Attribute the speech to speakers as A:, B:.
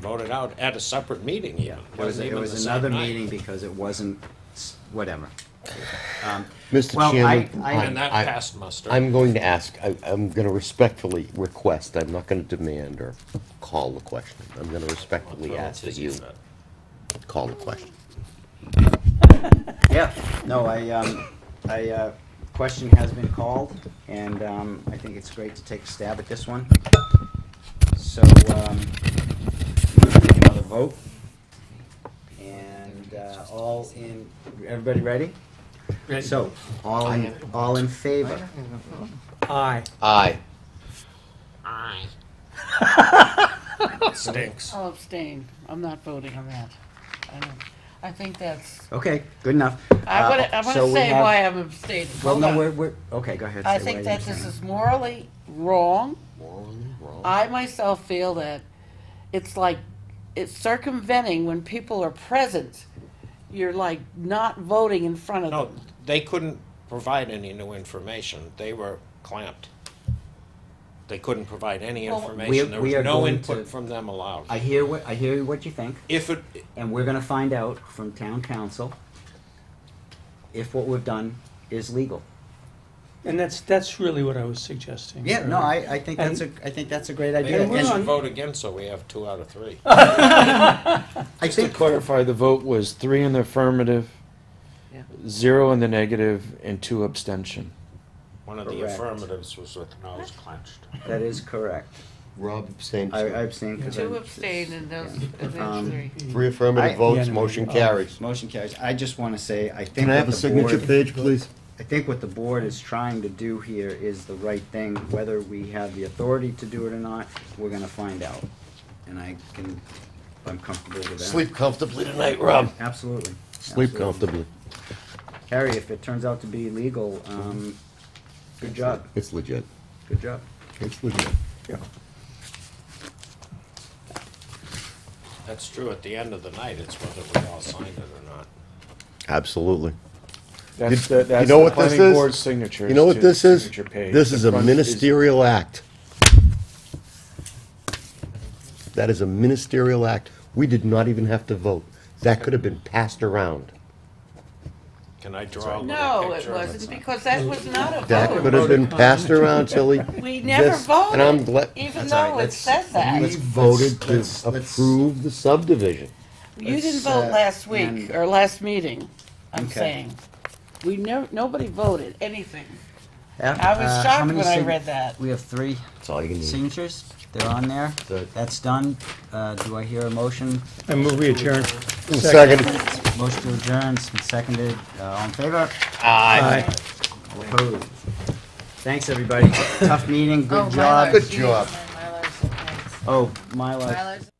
A: voted out at a separate meeting even.
B: It was,
A: Wasn't
B: it
A: even the
B: was
A: same
B: another
A: night.
B: meeting because it wasn't, s- whatever. Um,
C: Mr.
B: Well,
C: Chairman.
B: I- I-
A: And that
C: I-
A: passed muster.
C: I'm going to ask, I, I'm gonna respectfully request, I'm not gonna demand or call the question. I'm gonna respectfully ask that you call the question.
B: Yeah, no, I, um, I, uh, question has been called, and, um, I think it's great to take a stab at this one. So, um, we'll take another vote. And, uh, all in, everybody ready? So, all in, all in favor?
D: Aye.
C: Aye.
A: Aye. Stinks.
E: I'll abstain. I'm not voting on that. I don't, I think that's,
B: Okay, good enough.
E: I
B: Uh,
E: wanna, I wanna
B: so we
E: say
B: have-
E: why I'm abstaining.
B: Well,
E: Hold
B: no,
E: on.
B: we're, we're, okay, go ahead. say
E: I
B: why
E: think
B: you
E: that this
B: abstain.
E: is morally wrong.
C: Morally wrong.
E: I myself feel that it's like, it's circumventing when people are present. You're like not voting in front of
A: No,
E: them.
A: they couldn't provide any new information. They were clamped. They couldn't provide any
E: Well,
A: information. There was
B: we are
A: no
B: going
A: input
B: to-
A: from them allowed.
B: I hear what, I hear what you think.
A: If it,
B: And we're gonna find out from town council if what we've done is legal.
D: And that's, that's really what I was suggesting.
B: Yeah, no, I, I think that's a, I think that's a great idea.
A: maybe we
D: we're
A: should
D: on-
A: vote again, so we have two out of three.
B: I
F: Just to
B: think,
F: clarify, the vote was three in the affirmative,
E: Yeah.
F: zero in the negative, and two abstention.
A: One of the
B: Correct.
A: affirmatives was with nose clenched.
B: that is correct.
C: Rob abstained.
B: I, I abstain. 'cause
E: Two
B: I-
E: abstain and those, and
B: Um,
E: those three.
C: Three affirmative
B: I-
C: votes,
D: Yeah,
C: motion
D: no,
C: carries.
B: Motion carries. I just wanna say, I think
C: Can I have a
B: what the
C: signature
B: board,
C: page, please?
B: I think what the board is trying to do here is the right thing, whether we have the authority to do it or not, we're gonna find out. And I can, I'm comfortable with that.
C: Sleep comfortably tonight, Rob.
B: Absolutely.
C: Sleep
B: Absolutely.
C: comfortably.
B: Harry, if it turns out to be legal, um, good job,
C: It's legit.
B: good job.
C: It's legit.
A: That's true. At the end of the night, it's whether we all signed it or not.
C: Absolutely.
F: That's
C: You-
F: the, that's
C: you know
F: the
C: what this
F: planning
C: is?
F: board's signature.
C: You know
F: to
C: what
F: the
C: this is?
F: signature page.
C: This
F: The
C: is a
F: front
C: ministerial act. That is a ministerial act. We did not even have to vote. That could have been passed around.
A: Can I draw a little
E: No, it
A: picture? of
E: wasn't, because that was not a
C: That could
E: vote.
C: have been passed around, Tilly.
E: Oh, We never
C: Just- and I'm
E: voted,
C: glad-
E: even
B: That's all right,
E: though it
B: let's-
E: says that.
C: We voted to
B: let's- let's-
C: approve the subdivision.
E: You didn't
B: let's, uh,
E: vote last
B: and-
E: week, or last meeting, I'm
B: Okay.
E: saying. We never, nobody voted anything.
B: Yeah,
E: I was
B: uh, how
E: shocked
B: many
E: when I
B: sig-
E: read that.
B: We have three
C: That's all you can do.
B: signatures, they're on there,
C: Good.
B: that's done, uh, do I hear a motion?
D: I move we adjourn.
C: Second.
B: Motion to adjourn, it's been seconded, uh, all in favor?
D: Aye.
B: All opposed? Thanks, everybody, tough meeting,
G: Oh,
B: good
G: Mylar.
B: job.
C: Good job.
G: Mylar's- Mylar's-
B: Oh, my life.
G: Mylar's-